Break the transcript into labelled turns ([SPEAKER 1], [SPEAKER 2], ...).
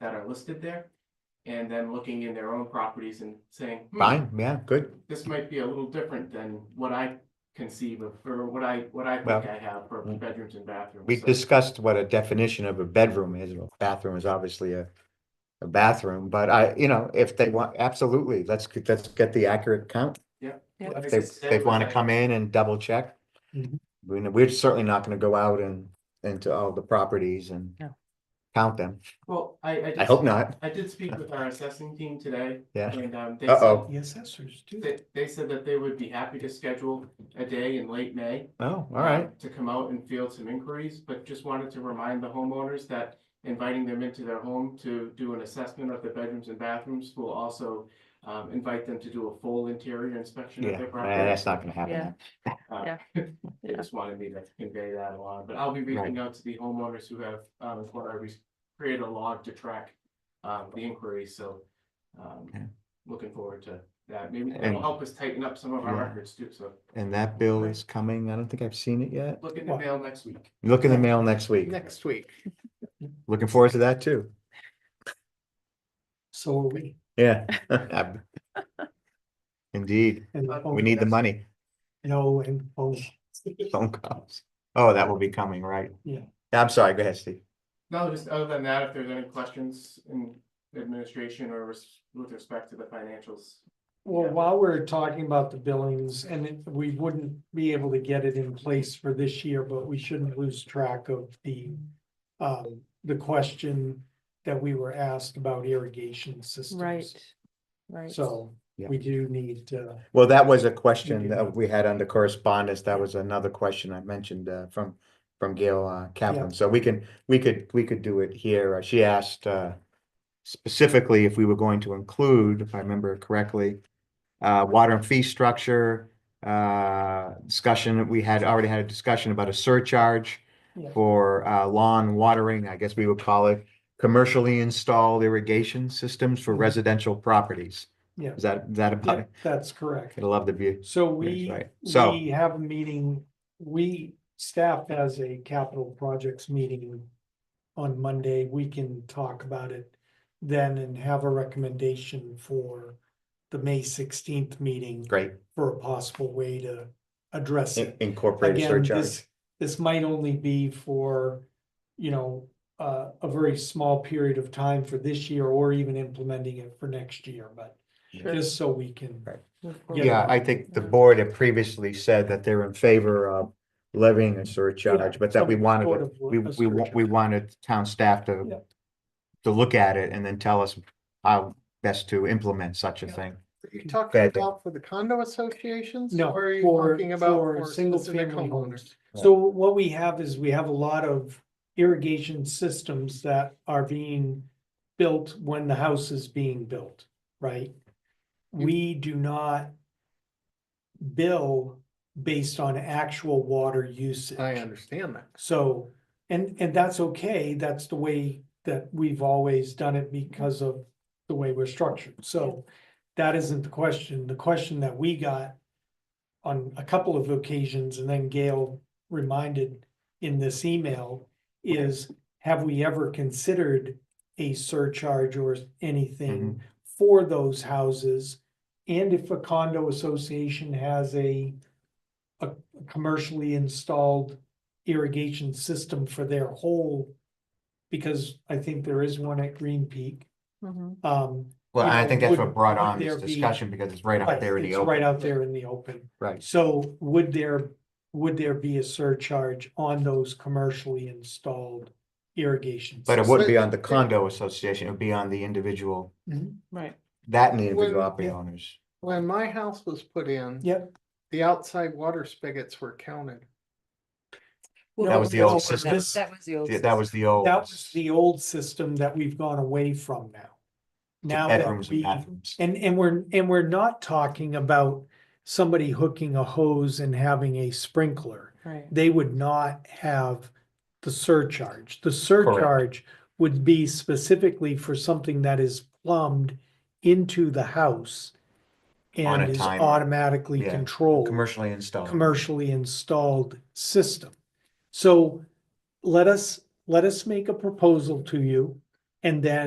[SPEAKER 1] that are listed there. And then looking in their own properties and saying. "Hmm,
[SPEAKER 2] Fine, yeah, good.
[SPEAKER 1] This might be a little different than what I conceive of, or what I, what I think
[SPEAKER 2] Well,
[SPEAKER 1] I have for
[SPEAKER 2] mm.
[SPEAKER 1] bedrooms and bathrooms.
[SPEAKER 2] We
[SPEAKER 1] So-
[SPEAKER 2] discussed what a definition of a bedroom is. Well, Bathroom is obviously a, a bathroom, but I, you know, if they want, absolutely, let's, get- let's get the accurate count.
[SPEAKER 3] Yeah.
[SPEAKER 1] Like I
[SPEAKER 2] If they,
[SPEAKER 1] said,
[SPEAKER 2] they want to
[SPEAKER 1] like-
[SPEAKER 2] come in and double check.
[SPEAKER 4] Mhm.
[SPEAKER 2] We, we're certainly not going to go out and, into all the properties and
[SPEAKER 3] No.
[SPEAKER 2] count them.
[SPEAKER 1] Well, I, I.
[SPEAKER 2] I
[SPEAKER 1] just-
[SPEAKER 2] hope not,
[SPEAKER 1] I did speak with our assessing team today.
[SPEAKER 2] yeah.
[SPEAKER 1] And um, they
[SPEAKER 2] Uh-oh.
[SPEAKER 1] said,
[SPEAKER 4] The assessors do.
[SPEAKER 1] they, they said that they would be happy to schedule a day in late May.
[SPEAKER 2] Oh, all right.
[SPEAKER 1] um, To come out and field some inquiries, but just wanted to remind the homeowners that inviting them into their home to do an assessment of the bedrooms and bathrooms will also um, invite them to do a full interior inspection of
[SPEAKER 2] Yeah,
[SPEAKER 1] their
[SPEAKER 2] eh,
[SPEAKER 1] property.
[SPEAKER 2] that's not going to
[SPEAKER 3] Yeah.
[SPEAKER 2] happen.
[SPEAKER 1] Uh,
[SPEAKER 3] yeah.
[SPEAKER 1] They just wanted me to convey that along, but I'll be reaching out to the homeowners who have, um, what I re- created a log to track um, the inquiries, so um,
[SPEAKER 2] Okay.
[SPEAKER 1] looking forward to that. Maybe
[SPEAKER 2] And-
[SPEAKER 1] it'll help us tighten up some of our
[SPEAKER 2] Yeah.
[SPEAKER 1] records too, so
[SPEAKER 2] And that bill is coming. I don't think I've seen it yet.
[SPEAKER 1] look in the mail next week.
[SPEAKER 2] Look in the mail next week.
[SPEAKER 4] Next week.
[SPEAKER 2] Looking forward to that too.
[SPEAKER 4] So are we.
[SPEAKER 2] Yeah. Ab- Indeed,
[SPEAKER 4] And the phone
[SPEAKER 2] we need the
[SPEAKER 4] calls,
[SPEAKER 2] money,
[SPEAKER 4] You know, and phone.
[SPEAKER 2] phone calls. Oh, that will be coming, right?
[SPEAKER 4] Yeah.
[SPEAKER 2] I'm sorry, go ahead, Steve.
[SPEAKER 1] No, just other than that, if there's any questions in administration or res- with respect to the financials.
[SPEAKER 4] Well,
[SPEAKER 1] Yeah.
[SPEAKER 4] while we're talking about the billings and it- we wouldn't be able to get it in place for this year, but we shouldn't lose track of the. Um, the question that we were asked about irrigation systems.
[SPEAKER 3] Right, right.
[SPEAKER 4] So
[SPEAKER 2] Yeah.
[SPEAKER 4] we do need to,
[SPEAKER 2] Well, that was a question
[SPEAKER 4] do
[SPEAKER 2] that
[SPEAKER 4] that.
[SPEAKER 2] we had under correspondence. That was another question I mentioned uh from from Gail uh Kaplan. So we can, we could, we could do it here. Uh, She asked uh specifically if we were going to include, if I remember correctly, uh water and fee structure uh discussion. We had already had a discussion about a surcharge
[SPEAKER 4] Yeah.
[SPEAKER 2] for uh lawn watering, I guess we would call it commercially installed irrigation systems for
[SPEAKER 4] Mhm.
[SPEAKER 2] residential properties.
[SPEAKER 4] yeah,
[SPEAKER 2] Is that, is that about
[SPEAKER 4] yeah,
[SPEAKER 2] it?
[SPEAKER 4] that's correct.
[SPEAKER 2] I'd love the view.
[SPEAKER 4] So
[SPEAKER 2] Yes,
[SPEAKER 4] we,
[SPEAKER 2] right. So-
[SPEAKER 4] we have a meeting, we, staff has a capital projects meeting on Monday. We can talk about it then and have a recommendation for the May sixteenth meeting
[SPEAKER 2] Great.
[SPEAKER 4] for a possible way to address
[SPEAKER 2] In-
[SPEAKER 4] it.
[SPEAKER 2] Incorporate a
[SPEAKER 4] Again,
[SPEAKER 2] surcharge.
[SPEAKER 4] this, this might only be for, you know, uh, a very small period of time for this year or even implementing it for next year, but
[SPEAKER 3] Sure.
[SPEAKER 4] just so we can,
[SPEAKER 2] Right.
[SPEAKER 3] Move forward.
[SPEAKER 2] Yeah, I think the board had previously said that they're in favor of levying a surcharge, but that we
[SPEAKER 4] some
[SPEAKER 2] wanted,
[SPEAKER 4] sort
[SPEAKER 2] it-
[SPEAKER 4] of
[SPEAKER 2] we,
[SPEAKER 4] a
[SPEAKER 2] we, wa- we
[SPEAKER 4] surcharge.
[SPEAKER 2] wanted town staff
[SPEAKER 4] Yeah.
[SPEAKER 2] to to look at it and then tell us how best to implement such a thing.
[SPEAKER 5] Are you
[SPEAKER 4] Mm.
[SPEAKER 5] talking
[SPEAKER 2] Bad thing.
[SPEAKER 5] about for the condo associations?
[SPEAKER 4] No,
[SPEAKER 5] Or are you
[SPEAKER 4] for-
[SPEAKER 5] talking about
[SPEAKER 4] for
[SPEAKER 5] for
[SPEAKER 4] single
[SPEAKER 5] specific
[SPEAKER 4] family
[SPEAKER 5] homeowners?
[SPEAKER 4] So what we have is we have a lot of irrigation systems that are being built when the house is being built, right? We do not bill based on actual water usage.
[SPEAKER 5] I understand that.
[SPEAKER 4] So, and, and that's okay, that's the way that we've always done it because of the way we're structured, so. That isn't the question, the question that we got on a couple of occasions, and then Gail reminded in this email. Is, have we ever considered a surcharge or
[SPEAKER 2] Mm-hmm.
[SPEAKER 4] anything for those houses? And if a condo association has a, a commercially installed irrigation system for their whole. Because I think there is one at Green Peak,
[SPEAKER 3] Mhm.
[SPEAKER 4] um.
[SPEAKER 2] Well,
[SPEAKER 4] you
[SPEAKER 2] I
[SPEAKER 4] know,
[SPEAKER 2] think that's
[SPEAKER 4] would-
[SPEAKER 2] what brought
[SPEAKER 4] would
[SPEAKER 2] on this
[SPEAKER 4] there be-
[SPEAKER 2] discussion because it's right out
[SPEAKER 4] right,
[SPEAKER 2] there in the
[SPEAKER 4] it's
[SPEAKER 2] open.
[SPEAKER 4] Right out there in the open.
[SPEAKER 2] Right,
[SPEAKER 4] So would there, would there be a surcharge on those commercially installed irrigation?
[SPEAKER 2] but it
[SPEAKER 4] systems?
[SPEAKER 2] wouldn't be on the condo association, it would be on the individual,
[SPEAKER 4] Mm-hmm.
[SPEAKER 3] Right,
[SPEAKER 2] that and the individual
[SPEAKER 5] When-
[SPEAKER 2] property
[SPEAKER 4] yeah.
[SPEAKER 2] owners.
[SPEAKER 5] When my house was put in.
[SPEAKER 4] Yep.
[SPEAKER 5] The outside water spigots were counted.
[SPEAKER 2] That was the old system.
[SPEAKER 3] That that was the old.
[SPEAKER 2] Yeah, That was the old.
[SPEAKER 4] That was the old system that we've gone away from now. Now that
[SPEAKER 2] Bedrooms and
[SPEAKER 4] we,
[SPEAKER 2] bathrooms.
[SPEAKER 4] and, and we're, and we're not talking about somebody hooking a hose and having a sprinkler.
[SPEAKER 3] system. Right.
[SPEAKER 4] they would not have the surcharge. The surcharge would be specifically for something that is plumbed into the house
[SPEAKER 2] On a
[SPEAKER 4] and is
[SPEAKER 2] timer.
[SPEAKER 4] automatically
[SPEAKER 2] Yeah.
[SPEAKER 4] controlled,
[SPEAKER 2] Commercially installed.
[SPEAKER 4] commercially installed system. So let us, let us make a proposal to you and then